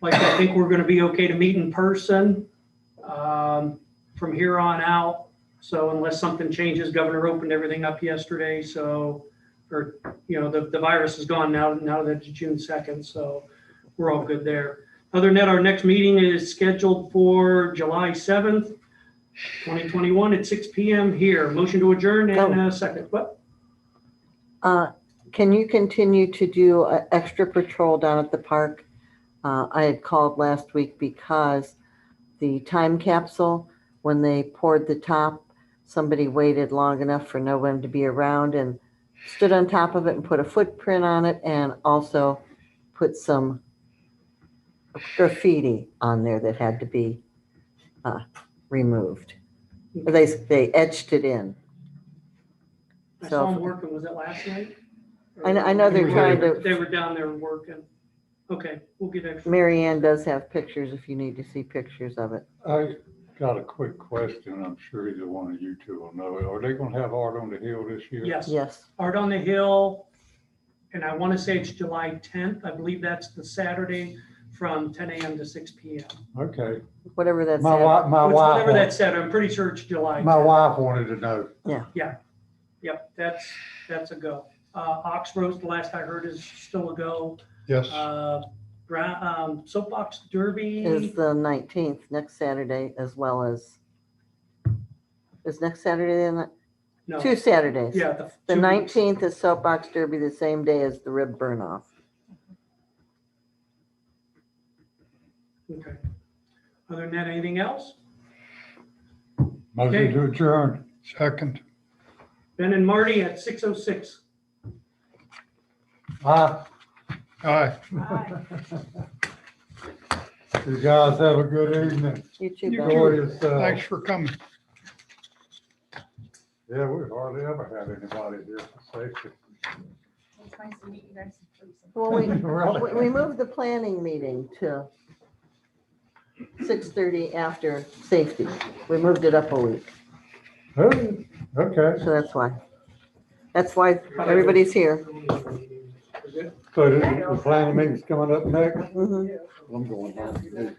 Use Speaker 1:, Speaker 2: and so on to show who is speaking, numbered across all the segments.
Speaker 1: Like, I think we're gonna be okay to meet in person, um, from here on out. So unless something changes, Governor opened everything up yesterday, so, or, you know, the, the virus is gone now, now that it's June second, so we're all good there. Other than that, our next meeting is scheduled for July seventh, twenty twenty-one at six P M here. Motion to adjourn and a second. What?
Speaker 2: Uh, Can you continue to do an extra patrol down at the park? Uh, I had called last week because the time capsule, when they poured the top, somebody waited long enough for no one to be around and stood on top of it and put a footprint on it and also put some graffiti on there that had to be uh, removed. They, they etched it in.
Speaker 1: I saw them working. Was it last night?
Speaker 2: I know- I know
Speaker 3: they're trying
Speaker 1: They were-
Speaker 2: to-
Speaker 1: They were down there working. Okay, we'll get extra.
Speaker 2: Mary Ann does have pictures if you need to see pictures of it.
Speaker 3: I got a quick question. I'm sure either one of you two will know it. Are they gonna have Art on the Hill this year?
Speaker 1: Yes,
Speaker 2: Yes.
Speaker 1: Art on the Hill. And I want to say it's July tenth. I believe that's the Saturday from ten AM to six PM.
Speaker 3: Okay.
Speaker 2: Whatever that's.
Speaker 3: My wife, my
Speaker 1: Which- Whatever that
Speaker 3: wife,
Speaker 1: said, I'm pretty sure it's July.
Speaker 3: my
Speaker 1: 10th.
Speaker 3: wife wanted to know.
Speaker 1: Yep, that's, that's a go. Uh, Ox Roast, the last I heard, is still a go.
Speaker 3: Yes,
Speaker 1: Uh, Brown, um, Soapbox
Speaker 2: Is
Speaker 1: Derby,
Speaker 2: the nineteenth, next Saturday, as well as. Is next Saturday, the ni-
Speaker 1: no,
Speaker 2: two Saturdays.
Speaker 1: yeah.
Speaker 2: The
Speaker 1: two weeks.
Speaker 2: nineteenth is soapbox derby, the same day as the rib burn off.
Speaker 1: Okay. Other than that, anything else?
Speaker 3: motion to adjourn. Second.
Speaker 1: Ben and Marty at 6:06.
Speaker 3: Aye. Aye. You guys have a good evening.
Speaker 2: You too,
Speaker 4: You
Speaker 2: Ben.
Speaker 4: too.
Speaker 3: Enjoy yourself.
Speaker 4: Thanks for coming.
Speaker 3: Yeah, we hardly ever had anybody here for safety.
Speaker 5: It's nice to meet you guys in person.
Speaker 2: Well, Oh, we,
Speaker 3: Really?
Speaker 2: we- we moved the planning meeting to six thirty after safety. We moved it up a week,
Speaker 3: Who? Okay,
Speaker 2: so that's why. That's why everybody's here.
Speaker 3: so the the planning meeting's coming up next.
Speaker 2: Mhm.
Speaker 3: I'm going home.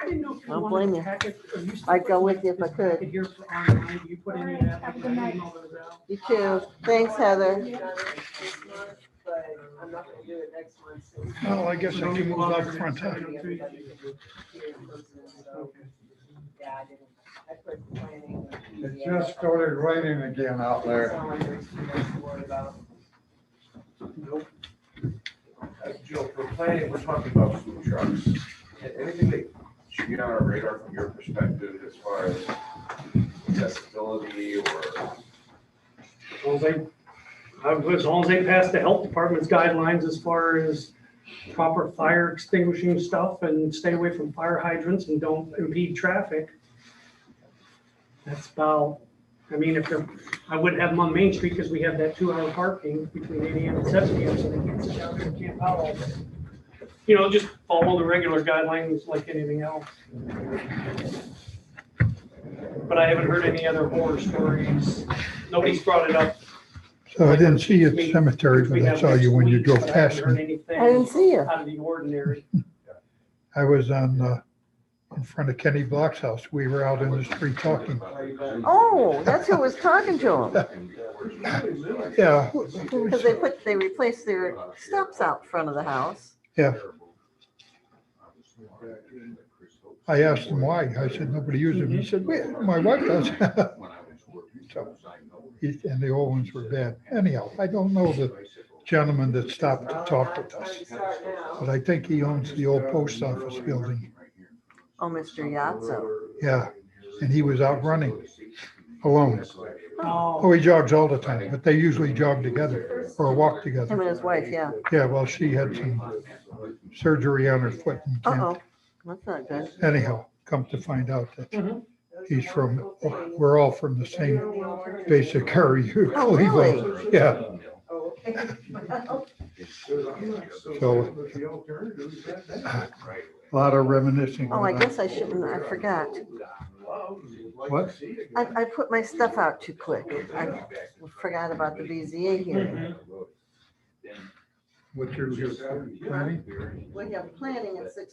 Speaker 1: I didn't know if you
Speaker 2: Don't
Speaker 1: wanted
Speaker 2: blame
Speaker 1: to
Speaker 2: you.
Speaker 1: pack it. or you still
Speaker 2: I'd go
Speaker 1: put
Speaker 2: with you if I
Speaker 1: this
Speaker 2: could.
Speaker 1: packet Here for online, do you put any of that,
Speaker 5: Have a
Speaker 1: like,
Speaker 5: good
Speaker 1: I
Speaker 5: night.
Speaker 1: email those out?
Speaker 2: You too. Thanks, Heather.
Speaker 6: But I'm not gonna do it next month. so we
Speaker 4: Well, I guess I can move out front. huh?
Speaker 6: can be everybody to do it in person, so, yeah, I didn't- I put planning and
Speaker 3: It
Speaker 6: PDA.
Speaker 3: just started raining again out
Speaker 6: It's
Speaker 3: there.
Speaker 6: not like there's too much to worry about.
Speaker 7: Nope. As Jill, for planning, we're talking about food trucks. A- Anything that should be on our radar from your perspective as far as accessibility or?
Speaker 1: As long as they, I would- as long as they pass the health department's guidelines as far as proper fire extinguishing stuff and stay away from fire hydrants and don't impede traffic. That's about, I mean, if they're, I wouldn't have them on Main Street because we have that two hour parking between eight AM and seven PM, so they can sit down there and camp out all day. You know, just follow the regular guidelines like anything else. But I haven't heard any other horror stories. Nobody's brought it up
Speaker 4: So I didn't see you at the cemetery, but I saw you when you drove past me.
Speaker 2: I didn't see you.
Speaker 1: Out of the ordinary.
Speaker 4: I was on, uh, in front of Kenny Block's house. We were out in the street talking.
Speaker 2: Oh, that's who was talking to him.
Speaker 4: Yeah.
Speaker 2: Because they put, they replaced their steps out front of the house.
Speaker 4: Yeah. I asked him why. I said, nobody uses them. He said, "Well, my wife does. So, he- And the old ones were bad. Anyhow, I don't know the gentleman that stopped to talk with us.
Speaker 6: Start now.
Speaker 4: But I think he owns the old post office building.
Speaker 2: Oh, Mr. Yatso.
Speaker 4: Yeah, and he was out running alone.
Speaker 1: Oh,
Speaker 4: Oh, he jogs all the time, but they usually jog together or walk
Speaker 2: Him and
Speaker 4: together.
Speaker 2: his wife, yeah.
Speaker 4: Yeah, well, she had some surgery on her foot and can't.
Speaker 2: Uh-oh, that's not good.
Speaker 4: Anyhow, come to find out that
Speaker 1: Mhm.
Speaker 4: he's from, we're all from the same basic area.
Speaker 2: Oh, really?
Speaker 4: Yeah,
Speaker 6: Oh, okay. Well,
Speaker 4: a lot of reminiscing.
Speaker 2: Oh, I
Speaker 4: going on.
Speaker 2: guess I shouldn't, I forgot.
Speaker 3: What?
Speaker 2: I, I put my stuff out too quick. I forgot about the BZA hearing.
Speaker 4: What's your, your planning?
Speaker 2: We have planning at six